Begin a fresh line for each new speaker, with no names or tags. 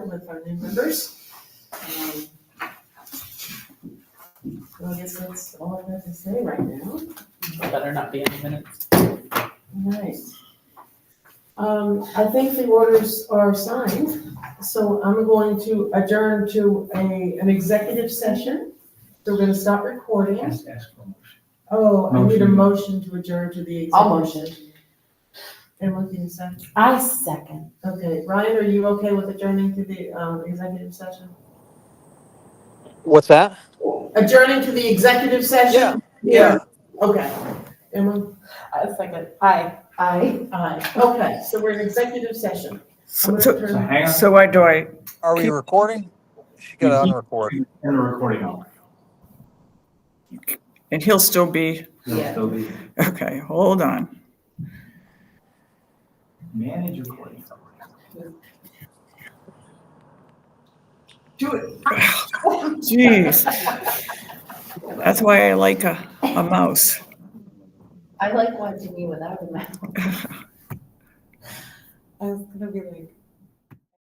with our new members. Um, Well, I guess that's all I have to say right now.
Better not be any minute.
Right. Um, I think the orders are signed, so I'm going to adjourn to a, an executive session. So we're gonna stop recording.
Ask, ask for a motion.
Oh, I need a
Motion.
motion to adjourn to the.
I'll
executive session. And what can you say?
I second.
Okay, Ryan, are you okay with adjourning to the, um, executive session?
What's that?
Adjourning to the executive session?
Yeah,
Okay. Emma?
I second. Aye. Aye.
Aye. Okay, so we're in executive session. I'm
So,
gonna
so,
So
turn-
hang on,
so why do I,
Are we recording? She could unrecord.
turn the recording off.
and he'll still be,
It'll
Yeah.
still be-
okay, hold on.
Manage recording.
Do it.
Jeez. That's why I like a, a mouse.
I like watching you without a mask. I was gonna be like,